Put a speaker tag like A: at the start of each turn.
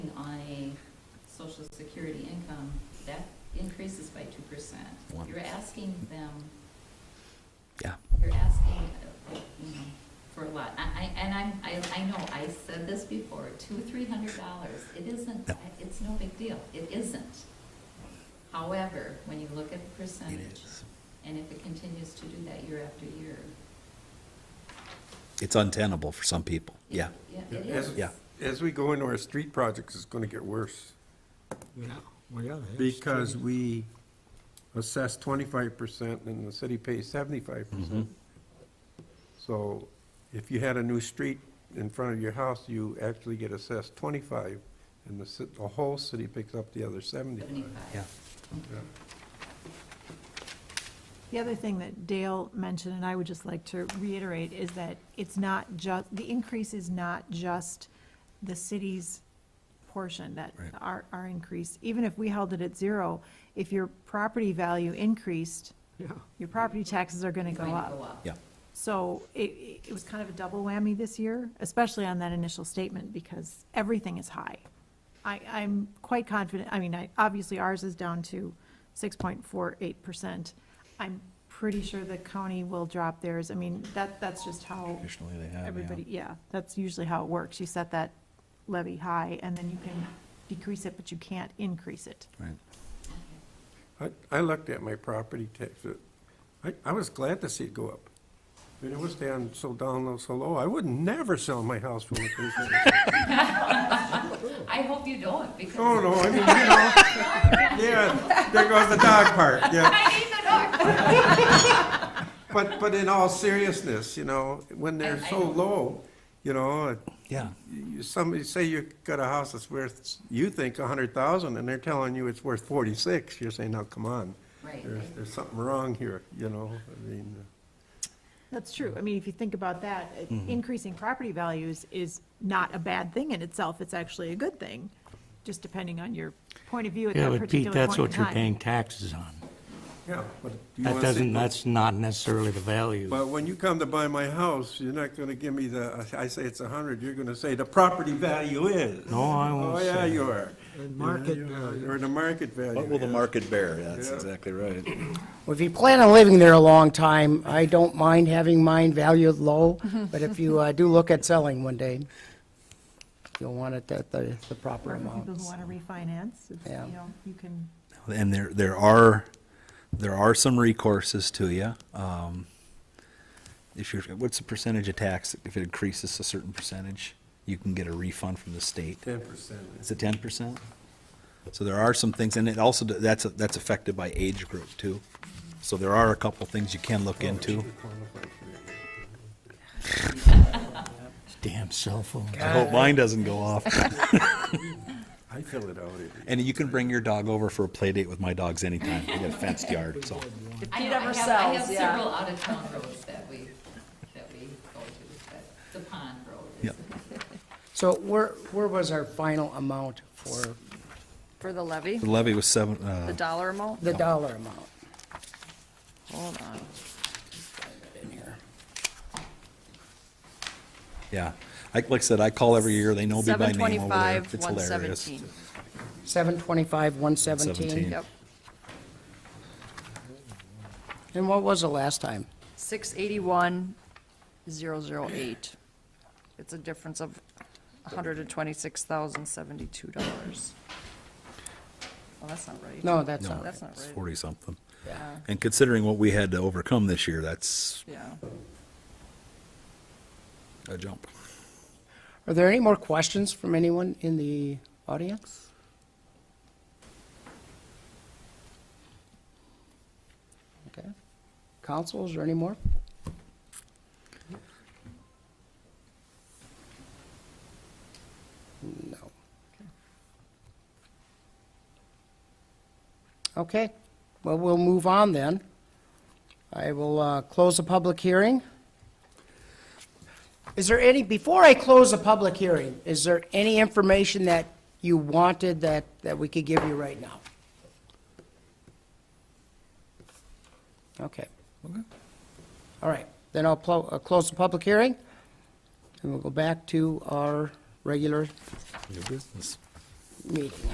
A: social security income, that increases by two percent.
B: One.
A: You're asking them,
B: Yeah.
A: you're asking, uh, you know, for a lot. I, I, and I'm, I, I know, I said this before, two, three hundred dollars, it isn't,
B: No.
A: it's no big deal, it isn't. However, when you look at the percentage.
B: is.
A: And if it continues to do that year after year.
B: It's untenable for some people.
A: it-
B: Yeah.
A: Yeah, it
C: Yeah, as-
A: is.
B: Yeah.
C: As we go into our street projects, it's gonna get worse,
D: Well, yeah.
C: because we assess twenty-five percent and the city pays seventy-five
B: Mm-hmm.
C: percent. So if you had a new street in front of your house, you actually get assessed twenty-five, and the, ci- the whole city picks up the other seventy-five.
A: Seventy-five.
B: Yeah.
C: Yeah.
E: The other thing that Dale mentioned, and I would just like to reiterate, is that it's not just, the increase is not just the city's portion, that
B: Right.
E: our, our increase, even if we held it at zero, if your property value increased, your property taxes are gonna go
A: Going to go
E: up.
A: up.
B: Yeah.
E: So it- it, it was kind of a double whammy this year, especially on that initial statement, because everything is high. I, I'm quite confident, I mean, I, obviously ours is down to six point four eight percent. I'm pretty sure the county will drop theirs, I mean, that, that's just how
B: Traditionally, they have.
E: everybody, yeah, that's usually how it works. You set that levy high, and then you can decrease it, but you can't increase it.
B: Right.
C: I, I looked at my property tax, uh, I, I was glad to see it go up. I mean, it was down so down, low, so low, I would never sell my house when it goes down.
A: I hope you don't, because.
C: Oh, no, I mean, you know, yeah, there goes the dog part, yeah.
A: I need the dog.
C: But, but in all seriousness, you know, when they're
A: I- I
C: so
A: don't-
C: low, you know,
B: Yeah.
C: you- somebody, say you got a house that's worth, you think a hundred thousand, and they're telling you it's worth forty-six, you're saying, now, come on.
A: Right.
C: There's, there's something wrong here, you know, I mean, uh,
E: That's true. I mean, if you think about that, uh, increasing property values is not a bad thing in itself. It's actually a good thing, just depending on your point of view at
F: Yeah,
E: that
F: but Pete,
E: particular
F: that's
E: point in
F: what you're paying
E: time.
F: taxes on.
C: yeah, but. do you
F: That
C: wanna say-
F: doesn't, that's not necessarily the value.
C: But when you come to buy my house, you're not gonna give me the, I say it's a hundred, you're gonna say the property value is.
F: No, I won't
C: Oh, yeah,
F: say
C: you are.
D: And market,
C: Yeah,
D: uh,
C: Or the market value.
B: What will the
C: yeah.
B: market bear? That's
C: Yeah.
B: exactly right.
G: Well, if you plan on living there a long time, I don't mind having mine valued low, but if you uh, do look at selling one day, you'll want it at the, the proper
E: Or for people
G: amount.
E: who want to refinance, it's, you
G: Yeah.
E: know, you can,
B: And there, there are, there are some recourses to you. Um, if you're, what's the percentage of tax? If it increases a certain percentage, you can get a refund from the state.
C: Ten percent.
B: Is it ten percent? So there are some things, and it also, that's, that's affected by age group too. So there are a couple things you can look into.
F: Damn cell phone.
B: I hope mine doesn't go off.
C: I fill it out.
B: And you can bring your dog over for a play date with my dogs anytime. We got a fenced yard, so.
A: I know,
H: Pete
A: I
H: ever
A: have- I have
H: sells, yeah.
A: several out-of-town roads that we, that we go to, but the pond road is.
G: So where, where was our final amount for
H: For the levy,
B: The levy was seven,
H: the
B: uh,
H: dollar amount?
G: the dollar amount?
H: Hold on.
B: yeah. Like, like I said, I call every year. They know me by
H: Seven
B: name over there.
H: twenty-five,
B: It's
H: one
B: hilarious.
H: seventeen.
G: Seven twenty-five, one seventeen?
H: Yep.
G: And what was the last time?
H: Six eighty-one, zero zero eight. It's a difference of hundred and twenty-six thousand, seventy-two dollars. Well, that's not right.
G: No, that's
B: No,
G: not
H: That's not
B: it's
H: right.
B: forty something.
H: Yeah,
B: And considering what we had to overcome this year, that's
H: yeah.
B: a jump.
G: Are there any more questions from anyone in the audience? Okay. Council, is there any more? No. Okay, well, we'll move on then. I will uh, close the public hearing. Is there any, before I close the public hearing, is there any information that you wanted that, that we could give you right now? Okay. All right, then I'll plo- uh, close the public hearing, and we'll go back to our regular
B: New business.
G: meeting.